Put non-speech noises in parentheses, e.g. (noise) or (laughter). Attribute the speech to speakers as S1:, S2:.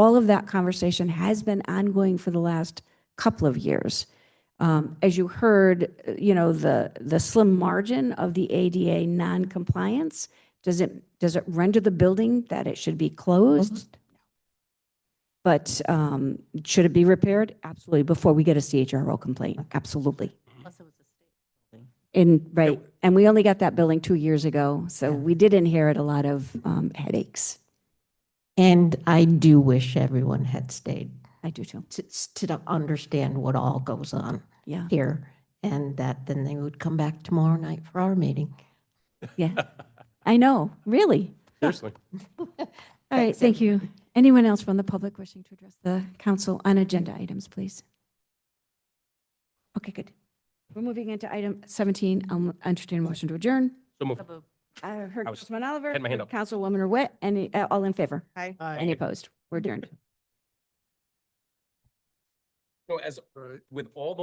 S1: all of that conversation has been ongoing for the last couple of years. Um, As you heard, uh, you know, the, the slim margin of the ADA non-compliance, does it, does it render the building that it should be closed? But um, should it be repaired? Absolutely, before we get a CHRO complaint, absolutely.
S2: Plus it was a state building.
S1: And, right, and we only got that building two years ago, so we did inherit a lot of um, headaches.
S3: And I do wish everyone had stayed
S1: I do too,
S3: to, to understand what all goes on (laughs)
S1: yeah,
S3: here. And that then they would come back tomorrow night for our meeting.
S1: yeah. I know, really.
S4: Seriously.
S1: All right, thank you. Anyone else from the public wishing to address the council on agenda items, please? Okay, good. We're moving into item 17. I'll entertain a motion to adjourn.
S4: So move.
S1: I heard
S4: I was-
S1: Councilman Uh, Oliver.
S4: had my hand up.
S1: Councilwoman Ruette, any, uh, all in favor?
S2: Hi.
S1: Any opposed? We're adjourned.
S4: So as, uh, with all the